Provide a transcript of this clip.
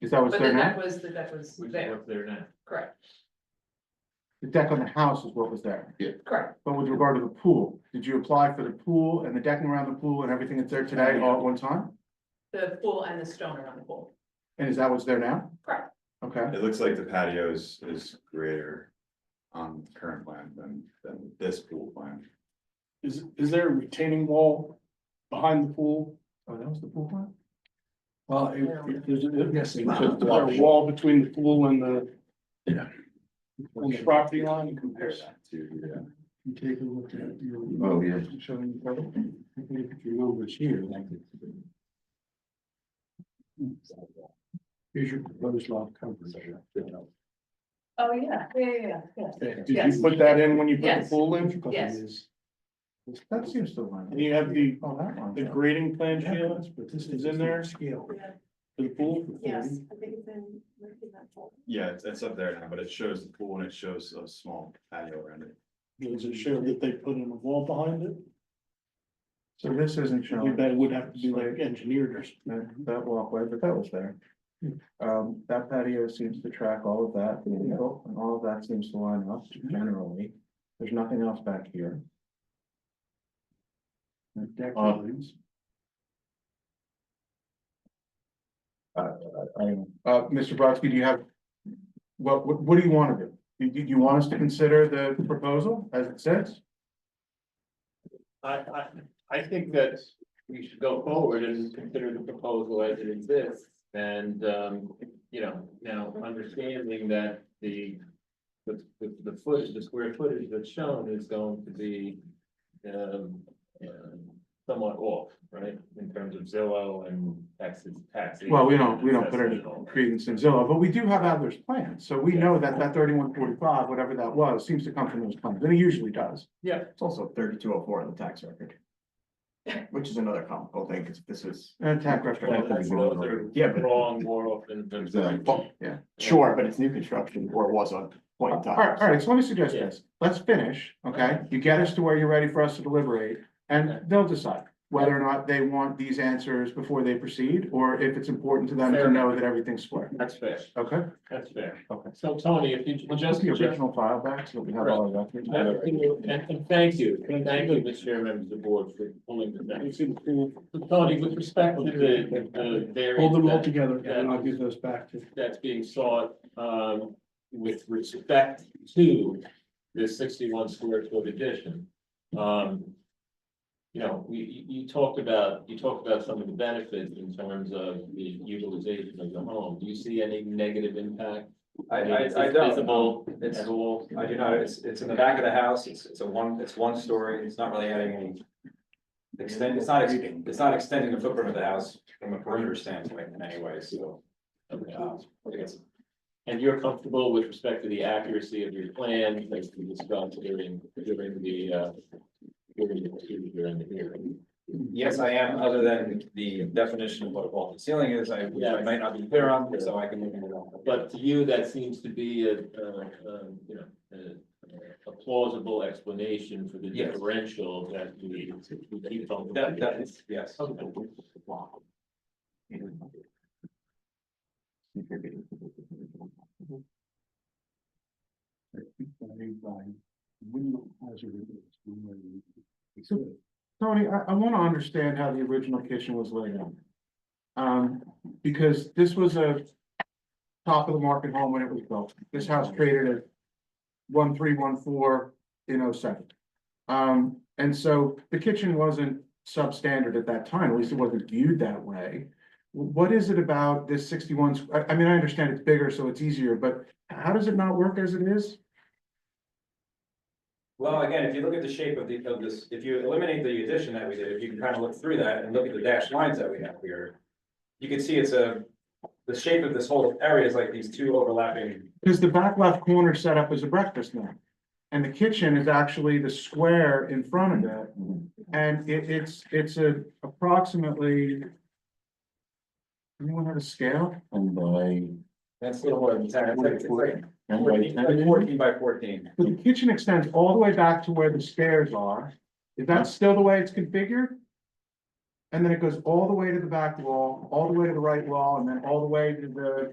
Is that what's But there the now? deck was, the deck was which is there, what's there now. correct, The deck on the house is what was there. correct. But with regard to the pool, did you apply for the pool and the decking around the pool and everything that's there today all at one time? The pool and the stone are on the pool, And is that what's there now? correct. Okay, It looks like the patio is, is greater on the current plan than, than this pool plan. Is, is there a retaining wall behind the pool? oh, that was the pool plan? Well, Uh, if, if there's, a- yes, is there a wall between the pool and the. Yeah. On the property line, you compare Compared that. to, You take a look at your. Oh, yeah. Showing you. If you over here, like. Here's your proposed lot coverage. Oh, yeah, yeah, yeah, yeah. Did Yes. you put that in when you put the Yes. pool in? Yes. That seems to line. up. And you have the, Oh, that one. the grading plan, Sheila, is in there? Scale. For the pool? Yes, I think it's in, where did that fall? yeah, it's, it's up there now, but it shows the pool and it shows a small patio around it. Does it show that they put in a wall behind it? So this isn't I think showing that would have to be like engineered or something. that Uh, that walkway, but that was there. Um, that patio seems to track all of that, in the middle, and all of that seems to line up Mm-hmm. generally. There's nothing else back here. The deck Uh, lines. I don't know. Uh, Mr. Brodsky, do you have, what, what, what do you want to do? Do, do you want us to consider the proposal as it says? I, I, I think that we should go forward and consider the proposal as it exists. And, um, you know, now understanding that the, the, the, the foot, the square footage that's shown is going to be, um, um, somewhat off, right? In terms of Zillow and taxes, taxes. Well, we don't, we don't put assessment any and all that. credence in Zillow, but we do have Adler's plan, so we know that that thirty-one forty-five, whatever that was, seems to come from those plans, and it usually does. It's also thirty-two oh four on the tax record. Which is another comical thing, because this is, And tax Well, that's- reference. Those are Yeah, but- wrong more often than. Exactly. Yeah. sure, but it's new construction or was on point in All right, all time. right, so let me suggest Yeah. this, let's finish, okay? You get us to where you're ready for us to deliberate, and Okay. they'll decide whether or not they want these answers before they proceed, or if it's important to them Fair to enough. know that everything's square, That's fair, okay? that's fair. Okay. So Tony, if you, well, Just just, the just, original file back, so we have all of and, that. and thank you, and thank you, Mr. Chair, members of the board for pulling this down. You see the pool, So Tony, with respect to the, the hold them all variance that- together and I'll give those back to. that's being sought, um, with respect to this sixty-one square foot addition, um, you know, we, you, you talked about, you talked about some of the benefits in terms of the utilization of the home. Do you see any negative impact? I, mean, is I, I it don't, Visible It's- at all? I do not, it's, it's in the back of the house, it's, it's a one, it's one story, it's not really adding any. Extend, it's not, ex- it's not extending the footprint of the house from a perimeter standpoint in any way, so. Okay. um, I think it's- And you're comfortable with respect to the accuracy of your plan, as you described during, during the, uh, during the, during the hearing? Yes, I am, other than the definition of what a vaulted ceiling is, I, which I might not be clear on, so I can look into that. But to you, that seems to be a, uh, um, you know, a- a plausible explanation for the Yes. differential that we we keep on. That, that is, yes. Tony, I, I wanna understand how the original kitchen was laid out. Um, because this was a top of the market home when it was built. This house traded at one, three, one, four in oh seven. Um, and so the kitchen wasn't substandard at that time, at least it wasn't viewed that way. Wh- What is it about this sixty-one, squ- I, I mean, I understand it's bigger, so it's easier, but how does it not work as it is? Well, again, if you look at the shape of the, of this, if you eliminate the addition that we did, if you can kind of look through that and look at the dashed lines that we have here. You can see it's a, the shape of this whole area is like these two overlapping, Because the back left corner set up as a breakfast nook. And the kitchen is actually the square in front of it. And it, it's, it's a approximately. Anyone have a scale? And by, that's a little more than ten, it's like, it's like fourteen, like and fourteen by fourteen. So the kitchen extends all the way back to where the stairs are. Is that still the way it's configured? And then it goes all the way to the back wall, all the way to the right wall, and then all the way to the